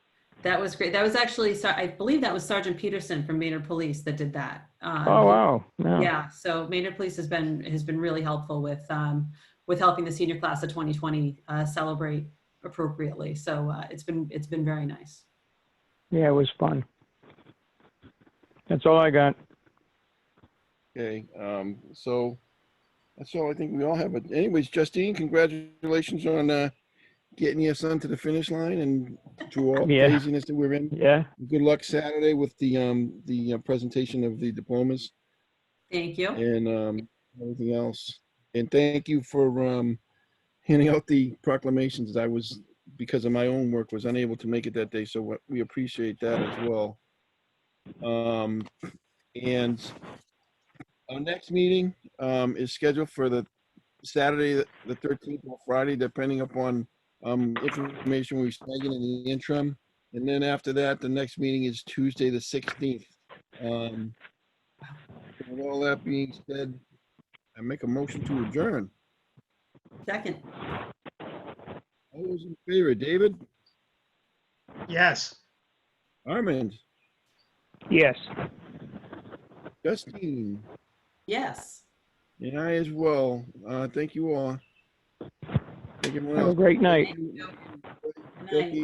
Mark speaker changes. Speaker 1: That was great. That was actually, Ser- I believe that was Sergeant Peterson from Maynard Police that did that. Um,
Speaker 2: Oh, wow. Yeah.
Speaker 1: Yeah, so Maynard Police has been, has been really helpful with, um, with helping the senior class of 2020 uh, celebrate appropriately. So uh, it's been, it's been very nice.
Speaker 2: Yeah, it was fun. That's all I got.
Speaker 3: Okay, um, so that's all I think we all have. But anyways, Justine, congratulations on uh, getting your son to the finish line and to all the
Speaker 2: Yeah.
Speaker 3: craziness that we're in.
Speaker 2: Yeah.
Speaker 3: Good luck Saturday with the um, the uh, presentation of the diplomas
Speaker 1: Thank you.
Speaker 3: and um, everything else. And thank you for um, handing out the proclamations. I was because of my own work was unable to make it that day, so what- we appreciate that as well. Um, and our next meeting um, is scheduled for the Saturday, the 13th or Friday, depending upon um, information we snag in the interim. And then after that, the next meeting is Tuesday, the 16th. Um, with all that being said, I make a motion to adjourn.
Speaker 1: Second.
Speaker 3: All those in favor, David,
Speaker 4: Yes.
Speaker 3: Armand,
Speaker 2: Yes.
Speaker 3: Justine,
Speaker 1: Yes.
Speaker 3: and I as well. Uh, thank you all. Thank you, everyone
Speaker 2: Have a
Speaker 3: else.
Speaker 2: great night.
Speaker 1: Thank you. Good night.
Speaker 3: Thank you.